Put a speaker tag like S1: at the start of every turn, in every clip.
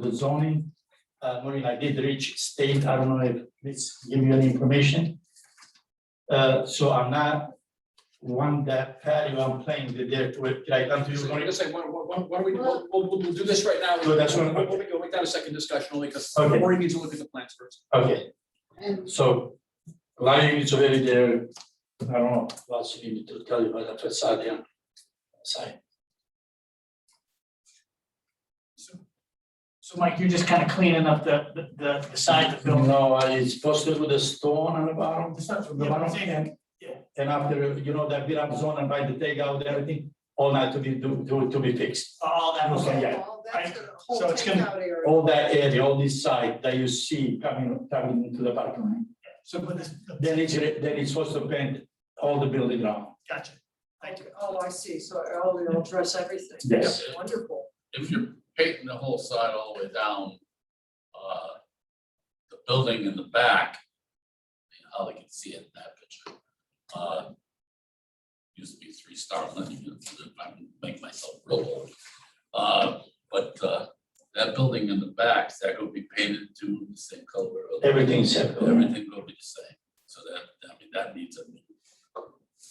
S1: to the zoning. Uh, Maureen, I did reach state, I don't know if this give you any information. Uh, so I'm not one that patio, I'm playing the dirt with, did I come to you,
S2: Wait
S1: Maureen?
S2: a second, why, why, why don't we, we'll, we'll, we'll do this right now.
S1: So that's what-
S2: We'll, we'll we'll make that a second discussion only because
S1: Okay.
S2: Maureen needs to look at the plans first.
S1: Okay,
S3: And
S1: so, lying is already there, I don't know, what else you need to tell you about the facade, yeah. Side.
S4: So Mike, you're just kind of cleaning up the, the- the, the side of the building.
S1: No, I- it's posted with a stone on the bottom.
S4: It's not from the
S1: The bottom,
S4: bottom.
S1: and,
S4: Yeah.
S1: and after, you know, that beat up zone and by the takeout, everything, all that to be, to, to- to be fixed.
S4: All that,
S1: Okay,
S4: okay,
S1: yeah.
S3: all that's the whole
S4: So it's gonna-
S3: takeout area.
S1: All that area, all this side that you see coming, coming into the parking lot.
S4: so, but this,
S1: Then it's, re- then it's supposed to paint all the building now.
S4: gotcha, thank you.
S3: Oh, I see, so all will address everything.
S1: Yes.
S3: Wonderful.
S5: if you're painting the whole side all the way down, uh, the building in the back, how they can see it in that picture, uh, used to be three-star living, I make myself real old. Uh, but, uh, that building in the back, is that gonna be painted to the same color?
S1: Everything's separate.
S5: Everything gonna be the same, so that, I mean, that needs a,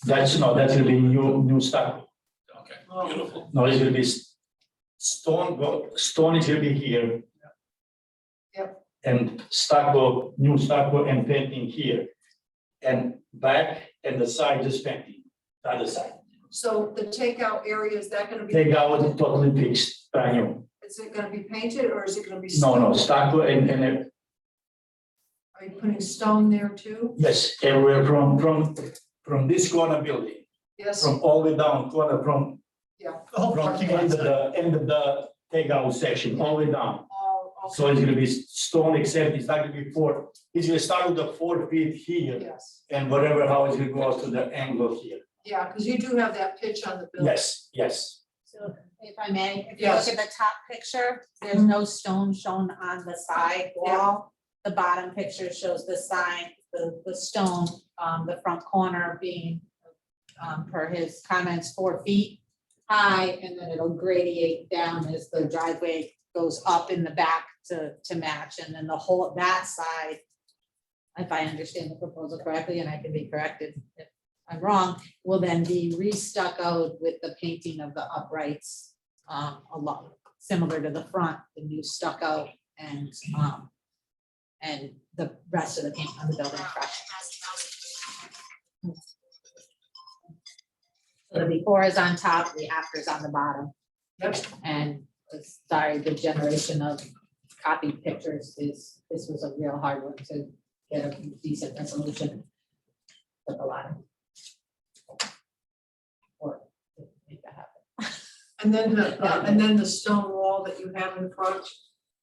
S1: That's, no, that's gonna be new, new stuff.
S3: Oh.
S5: okay, beautiful.
S1: No, it's gonna be s- stone, go- stone is gonna be here.
S3: Yep.
S1: And stucco, new stucco and painting here. And back and the side just painting, the other side.
S3: So the takeout area, is that gonna be?
S1: Take out the totally fixed, brand new.
S3: Is it gonna be painted or is it gonna be?
S1: No, no,
S3: stone?
S1: stucco and, and, uh,
S3: Are you putting stone there too?
S1: yes, everywhere from, from, from this corner building,
S3: Yes,
S1: from all the way down corner, from
S4: The whole
S1: From
S4: parking
S1: the end of
S4: lot,
S1: the, end of the takeout section, all the way down.
S3: all, all.
S1: So it's gonna be stone except it's not gonna be four, it's gonna start with the four feet here
S3: Yes,
S1: and whatever how it's gonna go out to the angle here.
S3: yeah, because you do have that pitch on the building.
S1: Yes, yes.
S6: So if I may, if you look
S3: Yes.
S6: at the top picture, there's no stone shown on the side wall. The bottom picture shows the sign, the, the stone, um, the front corner being, um, per his comments, four feet high, and then it'll gradiate down as the driveway goes up in the back to, to match, and then the whole, that side, if I understand the proposal correctly, and I can be corrected if I'm wrong, will then be restuccoed with the painting of the uprights um along, similar to the front, the new stucco and um and the rest of the paint on the building fresh. So The before is on top, the after is on the bottom.
S3: Yep.
S6: And uh, sorry, the generation of copied pictures is, this was a real hard one to get a decent resolution. Took a lot of work to make that happen.
S3: And then the, uh, and then the stone wall that you have in front,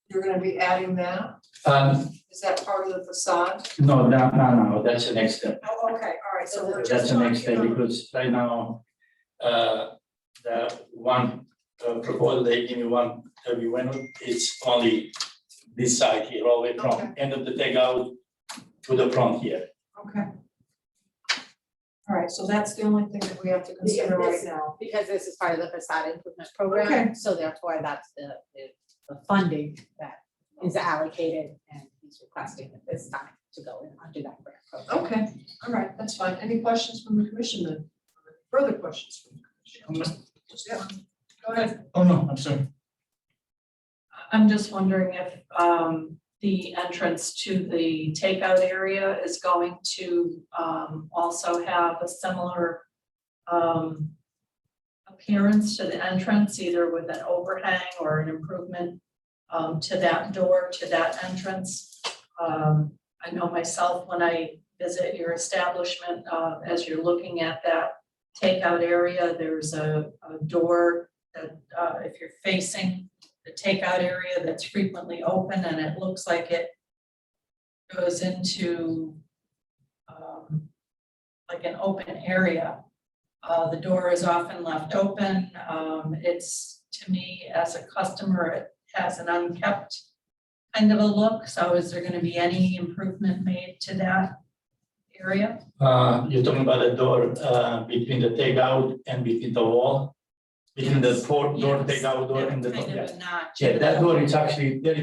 S3: you're gonna be adding that?
S1: Um,
S3: Is that part of the facade?
S1: no, no, no, no, that's the next step.
S3: Oh, okay, all right, so we're
S1: That's
S3: just
S1: the next
S3: talking
S1: step
S3: about.
S1: because right now, uh, the one uh, proposal they give me one, that we went on, it's only this side here, all the way
S3: Okay.
S1: from end of the takeout to the front here.
S3: Okay. All right, so that's the only thing that we have to consider right
S6: this-
S3: now.
S6: Because this is part of the facade improvement
S3: Okay.
S6: program, so therefore that's the, the- the funding that is allocated and he's requesting at this time to go in under that grant program.
S3: Okay, all right, that's fine. Any questions from the commission then? Further questions? from the commission?
S4: Um,
S3: Yeah. Go ahead.
S4: oh no, I'm sorry.
S7: I'm just wondering if um the entrance to the takeout area is going to um also have a similar um appearance to the entrance, either with an overhang or an improvement um to that door, to that entrance. Um, I know myself, when I visit your establishment, uh, as you're looking at that takeout area, there's a a door that uh if you're facing the takeout area that's frequently open and it looks like it goes into um, like an open area. Uh, the door is often left open. Um, it's, to me, as a customer, it has an unkept kind of a look. So is there gonna be any improvement made to that area?
S1: Uh, you're talking about the door, uh, between the takeout and between the wall? between the port door,
S7: Yes.
S1: takeout door and the,
S7: Kind
S1: yeah.
S7: of a notch.
S1: Yeah, that door is actually, there